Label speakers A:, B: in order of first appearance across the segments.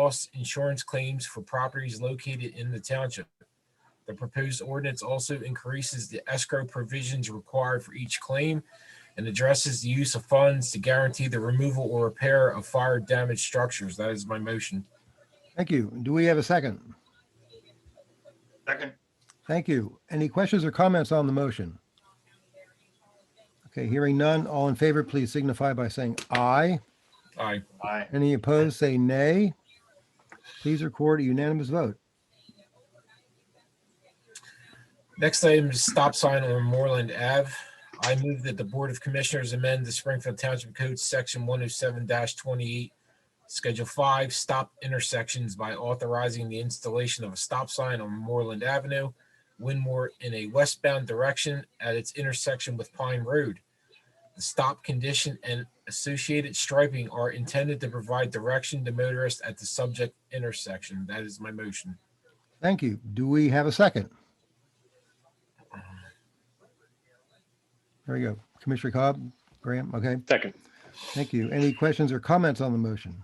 A: loss insurance claims for properties located in the township. The proposed ordinance also increases the escrow provisions required for each claim and addresses the use of funds to guarantee the removal or repair of fire damaged structures. That is my motion.
B: Thank you. Do we have a second?
C: Second.
B: Thank you. Any questions or comments on the motion? Okay, hearing none. All in favor, please signify by saying aye.
A: Aye.
C: Aye.
B: Any opposed, say nay. Please record a unanimous vote.
A: Next item is stop sign on Moreland Ave. I move that the Board of Commissioners amend the Springfield Township Code, Section one oh seven twenty-eight, Schedule five, stop intersections by authorizing the installation of a stop sign on Moreland Avenue, Winmore in a westbound direction at its intersection with Pine Road. The stop condition and associated striping are intended to provide direction to motorists at the subject intersection. That is my motion.
B: Thank you. Do we have a second? There we go. Commissioner Cobb, Graham, okay,
D: Second.
B: thank you. Any questions or comments on the motion?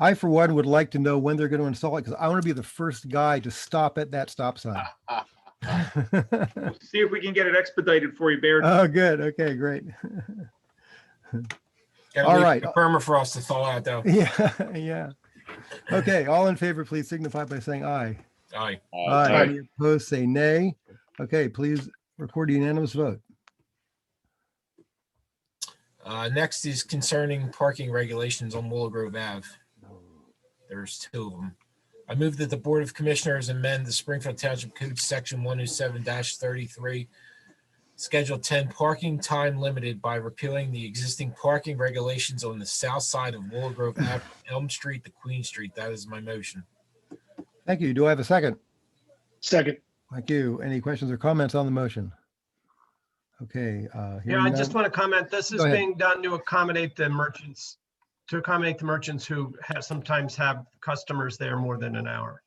B: I, for one, would like to know when they're going to install it because I want to be the first guy to stop at that stop sign.
C: See if we can get it expedited for you, Baird.
B: Oh, good. Okay, great.
A: Gotta
B: All
A: leave
B: right.
A: the Permafrost to thaw out though.
B: Yeah, yeah. Okay, all in favor, please signify by saying aye.
A: Aye.
B: Aye. Any opposed, say nay. Okay, please record a unanimous vote.
A: Uh, next is concerning parking regulations on Willow Grove Ave. There's two of them. I move that the Board of Commissioners amend the Springfield Township Code, Section one oh seven thirty-three, Schedule ten, parking time limited by repealing the existing parking regulations on the south side of Willow Grove Ave, Elm Street to Queen Street. That is my motion.
B: Thank you. Do I have a second?
D: Second.
B: Thank you. Any questions or comments on the motion? Okay. uh,
E: Yeah, I
B: hearing
E: just
B: none.
E: want to comment, this is
B: Go ahead.
E: being done to accommodate the merchants, to accommodate the merchants who have, sometimes have customers there more than an hour.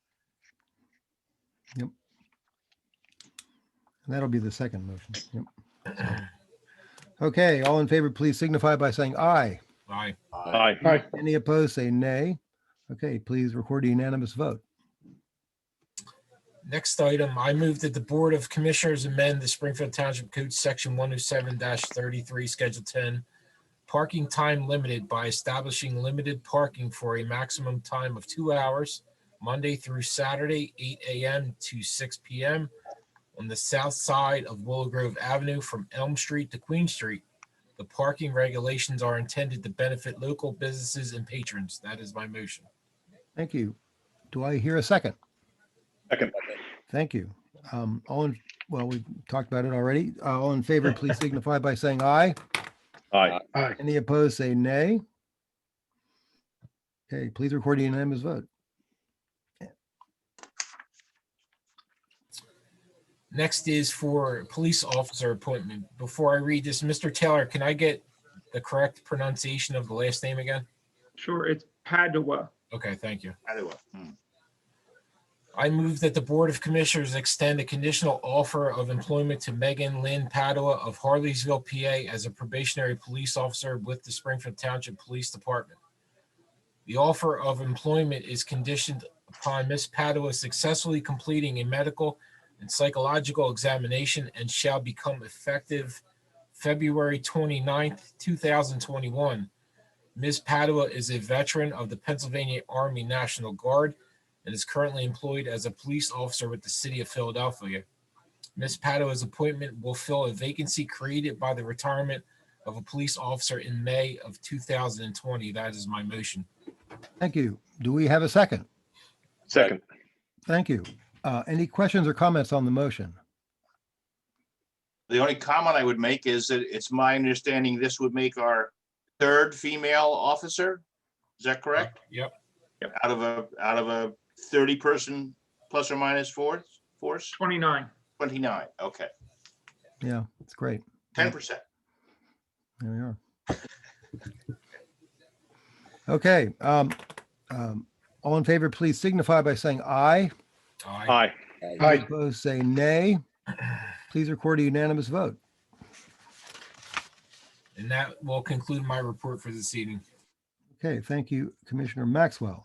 B: That'll be the second motion. Yep. Okay, all in favor, please signify by saying aye.
A: Aye.
D: Aye. Aye.
B: Any opposed, say nay. Okay, please record a unanimous vote.
A: Next item, I move that the Board of Commissioners amend the Springfield Township Code, Section one oh seven thirty-three, Schedule ten, parking time limited by establishing limited parking for a maximum time of two hours, Monday through Saturday, eight AM to six PM on the south side of Willow Grove Avenue from Elm Street to Queen Street. The parking regulations are intended to benefit local businesses and patrons. That is my motion.
B: Thank you. Do I hear a second?
D: Second.
B: Thank you. Um, all in, well, we talked about it already. Uh, all in favor, please signify by saying aye.
D: Aye.
B: Any opposed, say nay. Okay, please record a unanimous vote.
A: Next is for police officer appointment. Before I read this, Mr. Taylor, can I get the correct pronunciation of the last name again?
C: Sure, it's Padua.
A: Okay, thank you.
C: Padua.
F: Hmm.
A: I move that the Board of Commissioners extend a conditional offer of employment to Megan Lynn Padua of Harleysville, PA as a probationary police officer with the Springfield Township Police Department. The offer of employment is conditioned upon Ms. Padua successfully completing a medical and psychological examination and shall become effective February 29th, twenty-one. Ms. Padua is a veteran of the Pennsylvania Army National Guard and is currently employed as a police officer with the city of Philadelphia. Ms. Padua's appointment will fill a vacancy created by the retirement of a police officer in May of 2020. That is my motion.
B: Thank you. Do we have a second?
D: Second.
B: Thank you. Uh, any questions or comments on the motion?
F: The only comment I would make is that it's my understanding this would make our third female officer. Is that correct?
A: Yep,
F: Out of a, out of a thirty person plus or minus four, force,
C: Twenty-nine.
F: twenty-nine, okay,
B: Yeah, it's great.
F: ten percent.
B: There we are. Okay, um, um, all in favor, please signify by saying aye.
E: Uh,
A: aye.
D: Aye.
B: Aye. Opposed, say nay. Please record a unanimous vote.
A: And that will conclude my report for this evening.
B: Okay, thank you, Commissioner Maxwell.